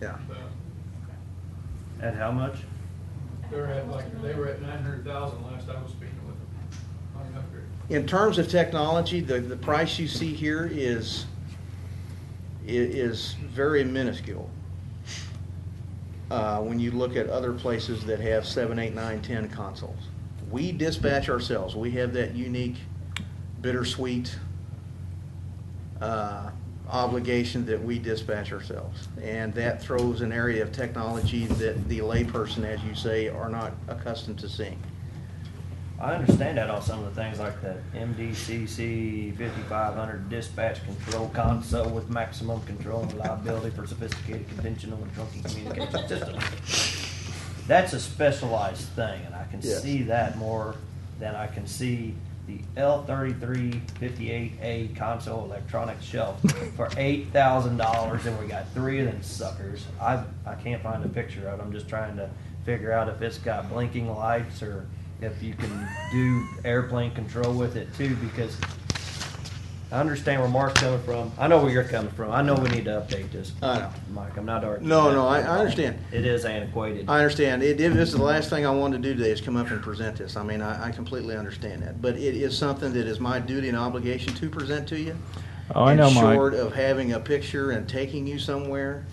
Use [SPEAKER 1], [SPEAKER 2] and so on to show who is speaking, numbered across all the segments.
[SPEAKER 1] Yeah.
[SPEAKER 2] At how much?
[SPEAKER 3] They're at like, they were at nine hundred thousand last I was speaking with them on an upgrade.
[SPEAKER 1] In terms of technology, the, the price you see here is, i- is very minuscule. Uh, when you look at other places that have seven, eight, nine, ten consoles. We dispatch ourselves. We have that unique bittersweet, uh, obligation that we dispatch ourselves. And that throws an area of technology that the layperson, as you say, are not accustomed to seeing.
[SPEAKER 2] I understand that on some of the things like the MDCC 5500 dispatch control console with maximum control and reliability for sophisticated conventional and trunking communication systems. That's a specialized thing, and I can
[SPEAKER 1] Yes.
[SPEAKER 2] see that more than I can see the L3358A console electronic shelf for $8,000, and we got three of them suckers. I, I can't find a picture of it. I'm just trying to figure out if it's got blinking lights or if you can do airplane control with it too, because I understand where Mark's coming from. I know where you're coming from. I know we need to update this.
[SPEAKER 1] I know.
[SPEAKER 2] Mike, I'm not arguing.
[SPEAKER 1] No,
[SPEAKER 2] that.
[SPEAKER 1] no, I- I understand.
[SPEAKER 2] It is antiquated.
[SPEAKER 1] I understand. It, it is the last thing I wanted to do today is come up and present this. I mean, I, I completely understand that, but it is something that is my duty and obligation to present to you.
[SPEAKER 4] Oh, I
[SPEAKER 1] And
[SPEAKER 4] know, Mike.
[SPEAKER 1] Short of having a picture and taking you somewhere,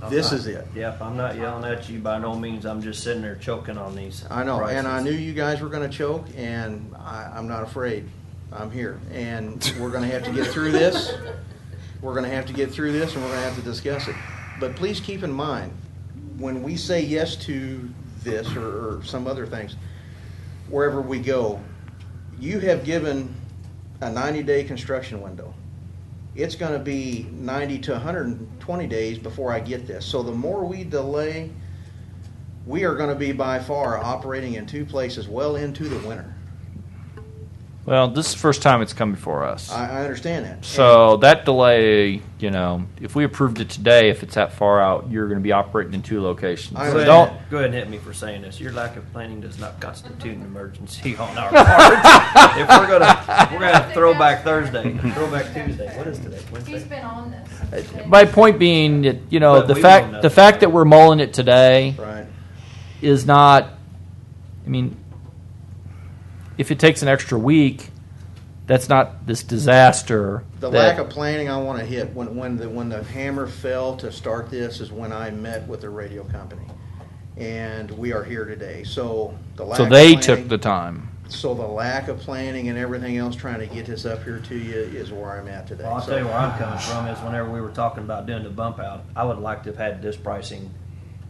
[SPEAKER 2] I'm
[SPEAKER 1] this
[SPEAKER 2] not-
[SPEAKER 1] is it.
[SPEAKER 2] Yep, I'm not yelling at you by no means. I'm just sitting there choking on these.
[SPEAKER 1] I know, and I
[SPEAKER 2] prices.
[SPEAKER 1] knew you guys were going to choke, and I, I'm not afraid. I'm here, and we're going to have to get through this. We're going to have to get through this, and we're going to have to discuss it. But please keep in mind, when we say yes to this or, or some other things, wherever we go, you have given a 90-day construction window. It's going to be 90 to 120 days before I get this. So the more we delay, we are going to be by far operating in two places well into the winter.
[SPEAKER 4] Well, this is the first time it's come before us.
[SPEAKER 1] I, I understand that.
[SPEAKER 4] so that delay, you know, if we approved it today, if it's that far out, you're going to be operating in two locations.
[SPEAKER 1] I
[SPEAKER 4] So
[SPEAKER 2] Go
[SPEAKER 1] understand.
[SPEAKER 4] don't.
[SPEAKER 2] ahead, go ahead and hit me for saying this. Your lack of planning does not constitute an emergency on our part. if we're gonna, if we're gonna throw back Thursday, throwback Tuesday. What is today?
[SPEAKER 5] He's
[SPEAKER 2] Wednesday.
[SPEAKER 5] been on this.
[SPEAKER 4] My point being that you know
[SPEAKER 2] But
[SPEAKER 4] the
[SPEAKER 2] we won't know.
[SPEAKER 4] fact the fact that we're mulling it today
[SPEAKER 1] Right.
[SPEAKER 4] is not. I mean, if it takes an extra week, that's not this disaster.
[SPEAKER 1] The
[SPEAKER 4] that-
[SPEAKER 1] lack of planning I want to hit when, when the when the hammer fell to start this is when I met with the radio company, and we are here today. So the lack
[SPEAKER 4] so
[SPEAKER 1] of
[SPEAKER 4] they
[SPEAKER 1] planning-
[SPEAKER 4] took the time.
[SPEAKER 1] so the lack of planning and everything else trying to get this up here to you is where I'm at today.
[SPEAKER 2] Well, I'll
[SPEAKER 1] So-
[SPEAKER 2] tell you where I'm coming from is whenever we were talking about doing the bump out, I would like to have had this pricing,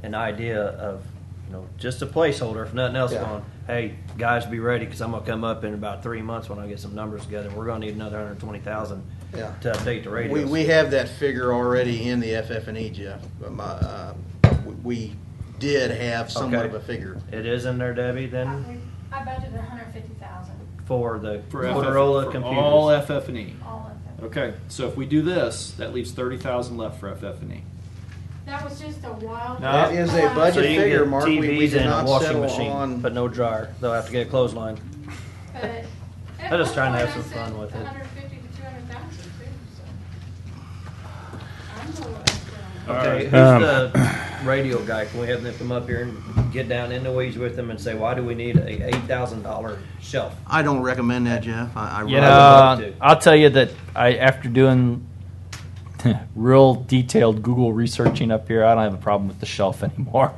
[SPEAKER 2] an idea of, you know, just a placeholder, if nothing else,
[SPEAKER 1] Yeah.
[SPEAKER 2] going, hey, guys, be ready, because I'm gonna come up in about three months when I get some numbers together, we're gonna need another hundred twenty thousand
[SPEAKER 1] Yeah.
[SPEAKER 2] to update the
[SPEAKER 1] We,
[SPEAKER 2] radios.
[SPEAKER 1] we have that figure already in the FF&E, Jeff. Um, uh, we- we did have somewhat
[SPEAKER 2] Okay.
[SPEAKER 1] of a figure.
[SPEAKER 2] It is in there, Debbie, then,
[SPEAKER 5] I budgeted hundred fifty thousand,
[SPEAKER 2] for the
[SPEAKER 6] For FF
[SPEAKER 2] Motorola
[SPEAKER 6] for All
[SPEAKER 2] computers.
[SPEAKER 6] FF and E.
[SPEAKER 5] all of them.
[SPEAKER 6] Okay, so if we do this, that leaves thirty thousand left for FF and E.
[SPEAKER 5] That was just a wild.
[SPEAKER 6] No.
[SPEAKER 1] That is a
[SPEAKER 2] So
[SPEAKER 1] budget
[SPEAKER 2] you
[SPEAKER 1] figure,
[SPEAKER 2] can get
[SPEAKER 1] Mark. We- we
[SPEAKER 2] TVs
[SPEAKER 1] did
[SPEAKER 2] and a
[SPEAKER 1] not
[SPEAKER 2] washing
[SPEAKER 1] settle
[SPEAKER 2] machine,
[SPEAKER 1] on-
[SPEAKER 2] but no dryer, they'll have to get a clothesline.
[SPEAKER 5] But at
[SPEAKER 2] I'm just
[SPEAKER 5] one
[SPEAKER 2] trying to
[SPEAKER 5] point
[SPEAKER 2] have
[SPEAKER 5] I
[SPEAKER 2] some fun
[SPEAKER 5] said
[SPEAKER 2] with it.
[SPEAKER 5] 150 to 200,000 too, so. I'm a little extra on that.
[SPEAKER 2] Okay, who's
[SPEAKER 4] Um,
[SPEAKER 2] the radio guy? Can we have them come up here and get down in the weeds with them and say, why do we need a eight thousand dollar shelf?
[SPEAKER 1] I don't recommend that, Jeff. I, I
[SPEAKER 4] You
[SPEAKER 1] really
[SPEAKER 2] love
[SPEAKER 4] know,
[SPEAKER 2] to.
[SPEAKER 4] I'll tell you that I, after doing real detailed Google researching up here, I don't have a problem with the shelf anymore.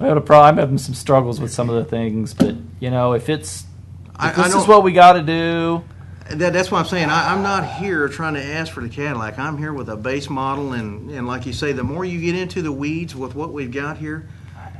[SPEAKER 4] I had a problem. I'm having some struggles with some of the things, but you know, if it's if
[SPEAKER 1] I- I
[SPEAKER 4] this is
[SPEAKER 1] don't-
[SPEAKER 4] what we got to do,
[SPEAKER 1] That, that's what I'm saying. I, I'm not here trying to ask for the Cadillac. I'm here with a base model, and, and like you say, the more you get into the weeds with what we've got here,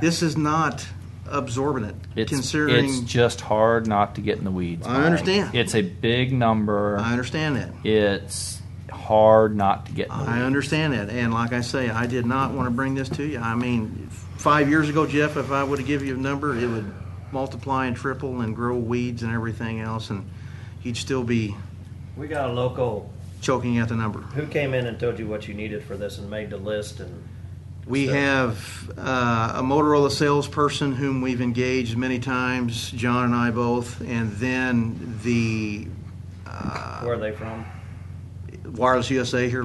[SPEAKER 1] this is not absorbent
[SPEAKER 4] it's
[SPEAKER 1] considering.
[SPEAKER 4] it's just hard not to get in the weeds.
[SPEAKER 1] I
[SPEAKER 4] Mike.
[SPEAKER 1] understand.
[SPEAKER 4] It's a big number.
[SPEAKER 1] I understand that.
[SPEAKER 4] It's hard not to get in the
[SPEAKER 1] I
[SPEAKER 4] weeds.
[SPEAKER 1] understand that, and like I say, I did not want to bring this to you. I mean, five years ago, Jeff, if I would have given you a number, it would multiply and triple and grow weeds and everything else, and you'd still be
[SPEAKER 2] We got a local
[SPEAKER 1] choking at the number.
[SPEAKER 2] who came in and told you what you needed for this and made the list and
[SPEAKER 1] We
[SPEAKER 2] So-
[SPEAKER 1] have uh, a Motorola salesperson whom we've engaged many times, John and I both, and then the uh,
[SPEAKER 2] where are they from?
[SPEAKER 1] Wireless USA here